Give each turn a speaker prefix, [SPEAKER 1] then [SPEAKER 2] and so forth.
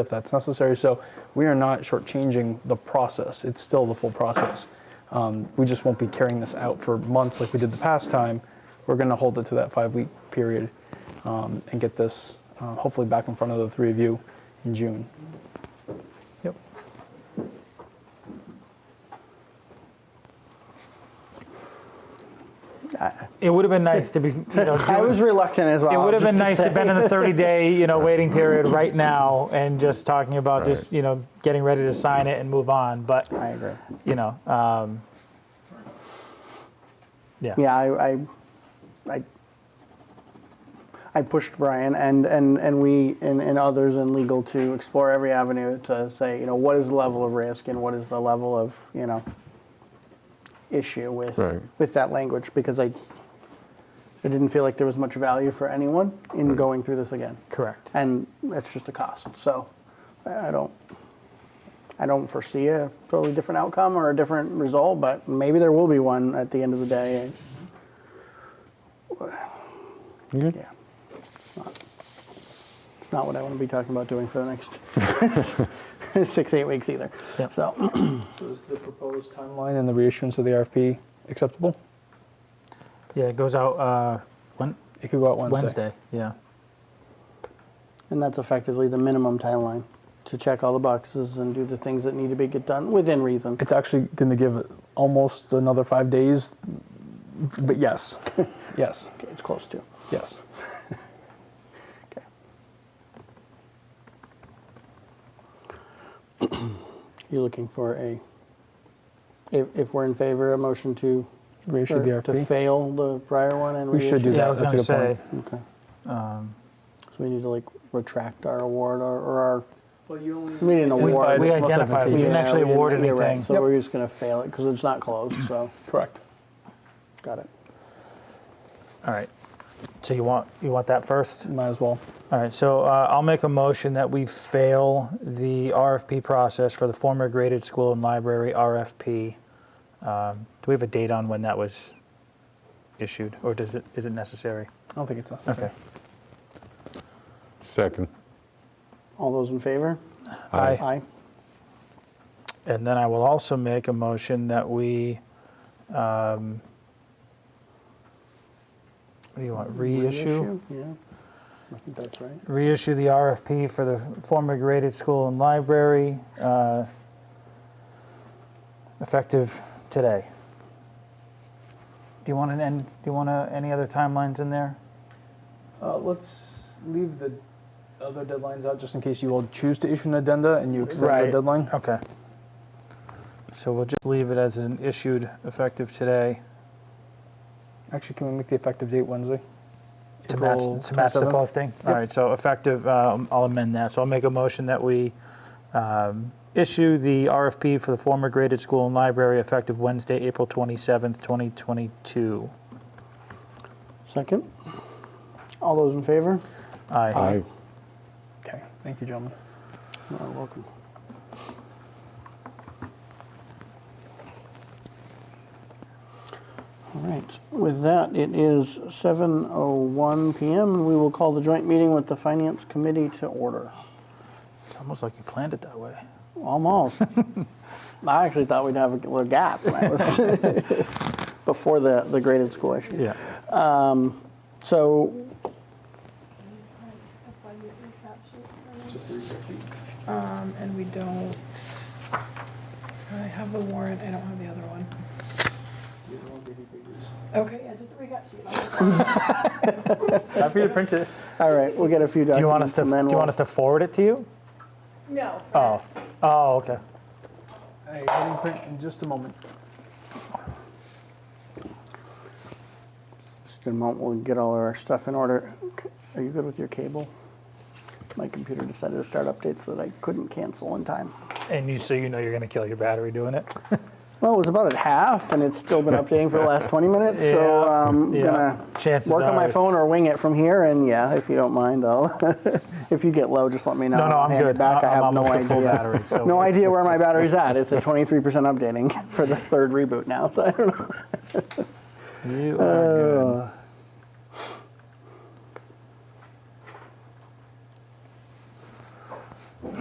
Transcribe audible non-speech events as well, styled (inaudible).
[SPEAKER 1] if that's necessary. So we are not shortchanging the process. It's still the full process. Um, We just won't be carrying this out for months like we did the past time. We're going to hold it to that five-week period um, and get this uh, hopefully back in front of the three of you in June. Yep.
[SPEAKER 2] It would have been
[SPEAKER 3] (laughs)
[SPEAKER 2] nice to be, you know,
[SPEAKER 3] I was
[SPEAKER 2] doing-
[SPEAKER 3] reluctant as well.
[SPEAKER 2] it would have been
[SPEAKER 3] just to
[SPEAKER 2] nice
[SPEAKER 3] say.
[SPEAKER 2] to been in the 30-day, you know, waiting period right now and just talking about this,
[SPEAKER 4] Right.
[SPEAKER 2] you know, getting ready to sign it and move on. But,
[SPEAKER 3] I agree.
[SPEAKER 2] you know, um, yeah.
[SPEAKER 3] Yeah, I, I, I, I pushed Brian and, and, and we and, and others in legal to explore every avenue to say, you know, what is the level of risk and what is the level of, you know, issue with
[SPEAKER 4] Right.
[SPEAKER 3] with that language because I, I didn't feel like there was much value for anyone in going through this again.
[SPEAKER 2] Correct.
[SPEAKER 3] and that's just a cost. So I I don't, I don't foresee a totally different outcome or a different result, but maybe there will be one at the end of the day.
[SPEAKER 4] You good?
[SPEAKER 3] Yeah. It's not- It's not what I want to be talking about doing for the next (laughs)
[SPEAKER 4] (laughs)
[SPEAKER 3] six, eight weeks either.
[SPEAKER 2] Yep.
[SPEAKER 3] So, (clears throat)
[SPEAKER 1] So is the proposed timeline and the reissuance of the RFP acceptable?
[SPEAKER 2] Yeah, it goes out uh, Wed-
[SPEAKER 1] It could go out Wednesday.
[SPEAKER 2] Wednesday. Yeah.
[SPEAKER 3] and that's effectively the minimum timeline to check all the boxes and do the things that need to be get done within reason.
[SPEAKER 1] It's actually going to give almost another five days, but yes, (laughs) yes,
[SPEAKER 3] Okay, It's close to.
[SPEAKER 1] yes.
[SPEAKER 3] You're looking for a, if, if we're in favor, a motion to
[SPEAKER 1] Reissue the
[SPEAKER 3] or To
[SPEAKER 1] RFP.
[SPEAKER 3] fail the prior one and
[SPEAKER 1] We should do
[SPEAKER 3] reissue?
[SPEAKER 2] Yeah,
[SPEAKER 1] that.
[SPEAKER 2] I was
[SPEAKER 1] That's a
[SPEAKER 2] going to
[SPEAKER 1] good
[SPEAKER 2] say,
[SPEAKER 1] point.
[SPEAKER 3] Okay.
[SPEAKER 2] Um,
[SPEAKER 3] So we need to like retract our award or, or our,
[SPEAKER 1] Well, you only
[SPEAKER 3] we didn't
[SPEAKER 1] We-
[SPEAKER 3] award.
[SPEAKER 2] we
[SPEAKER 1] Most
[SPEAKER 2] identified,
[SPEAKER 1] advantageous.
[SPEAKER 2] we didn't
[SPEAKER 3] Yeah,
[SPEAKER 2] actually
[SPEAKER 3] we
[SPEAKER 2] award
[SPEAKER 3] you're right,
[SPEAKER 2] anything.
[SPEAKER 3] So we're just gonna fail it because it's not closed, so,
[SPEAKER 1] Correct.
[SPEAKER 3] got it.
[SPEAKER 2] All right. So you want, you want that first?
[SPEAKER 1] Might as well.
[SPEAKER 2] All right, so uh, I'll make a motion that we fail the RFP process for the former graded school and library RFP. Um, Do we have a date on when that was issued, or does it, is it necessary?
[SPEAKER 1] I don't think it's necessary.
[SPEAKER 2] Okay.
[SPEAKER 4] Second.
[SPEAKER 3] All those in favor?
[SPEAKER 2] Aye.
[SPEAKER 3] Aye.
[SPEAKER 2] And then I will also make a motion that we, um, what do you want, reissue?
[SPEAKER 3] Yeah, I think that's right.
[SPEAKER 2] reissue the RFP for the former graded school and library, uh, effective today. Do you want an end, do you want a, any other timelines in there?
[SPEAKER 1] Uh, let's leave the other deadlines out just in case you all choose to issue an addenda and you extend
[SPEAKER 2] Right.
[SPEAKER 1] the deadline.
[SPEAKER 2] Okay. So we'll just leave it as an issued effective today
[SPEAKER 1] Actually, can we make the effective date Wednesday?
[SPEAKER 2] to match,
[SPEAKER 1] April
[SPEAKER 2] to match the
[SPEAKER 1] 27th?
[SPEAKER 2] posting? All right, so effective, um, I'll amend that. So I'll make a motion that we, um, issue the RFP for the former graded school and library effective Wednesday, April 27th, 2022.
[SPEAKER 3] Second? All those in favor?
[SPEAKER 2] Aye.
[SPEAKER 4] Aye.
[SPEAKER 1] Okay. Thank you, gentlemen.
[SPEAKER 3] You are welcome. All right, with that, it is 7:01 PM, and we will call the joint meeting with the Finance Committee to order.
[SPEAKER 2] It's almost like you planned it that way. (laughs)
[SPEAKER 3] Almost. I actually thought we'd have a little gap when I was (laughs) before the, the graded school issue.
[SPEAKER 2] Yeah.
[SPEAKER 3] So
[SPEAKER 5] Um, and we don't, I have the warrant, I don't have the other one. Okay, yeah, just the recap sheet.
[SPEAKER 1] Happy to print it.
[SPEAKER 3] All right, we'll get a few
[SPEAKER 2] Do you want
[SPEAKER 3] documents
[SPEAKER 2] us to,
[SPEAKER 3] and
[SPEAKER 2] do
[SPEAKER 3] then
[SPEAKER 2] you
[SPEAKER 3] we'll-
[SPEAKER 2] want us to forward it to you?
[SPEAKER 5] No.
[SPEAKER 2] Oh, oh, okay.
[SPEAKER 1] Hey, getting print in just a moment.
[SPEAKER 3] Just in a moment, we'll get all of our stuff in order. C- Are you good with your cable? My computer decided to start updates that I couldn't cancel in time.
[SPEAKER 2] And you, so you know you're going to kill your battery doing it?
[SPEAKER 3] Well, it was about at half, and it's still been updating for the last 20 minutes. So
[SPEAKER 2] Yeah,
[SPEAKER 3] um, I'm
[SPEAKER 2] yeah.
[SPEAKER 3] gonna
[SPEAKER 2] Chances
[SPEAKER 3] work on my
[SPEAKER 2] are-
[SPEAKER 3] phone or wing it from here. And yeah, if you don't mind, I'll. (laughs) if you get low, just let me know.
[SPEAKER 2] No, no,
[SPEAKER 3] I'll
[SPEAKER 2] I'm
[SPEAKER 3] hand
[SPEAKER 2] good.
[SPEAKER 3] It back.
[SPEAKER 2] I-
[SPEAKER 3] I
[SPEAKER 2] I'm
[SPEAKER 3] have no
[SPEAKER 2] almost at
[SPEAKER 3] idea.
[SPEAKER 2] full battery, so-
[SPEAKER 3] (laughs) no idea where my battery's at. It's at 23% (laughs) updating for the third reboot now. So I don't know.
[SPEAKER 2] You are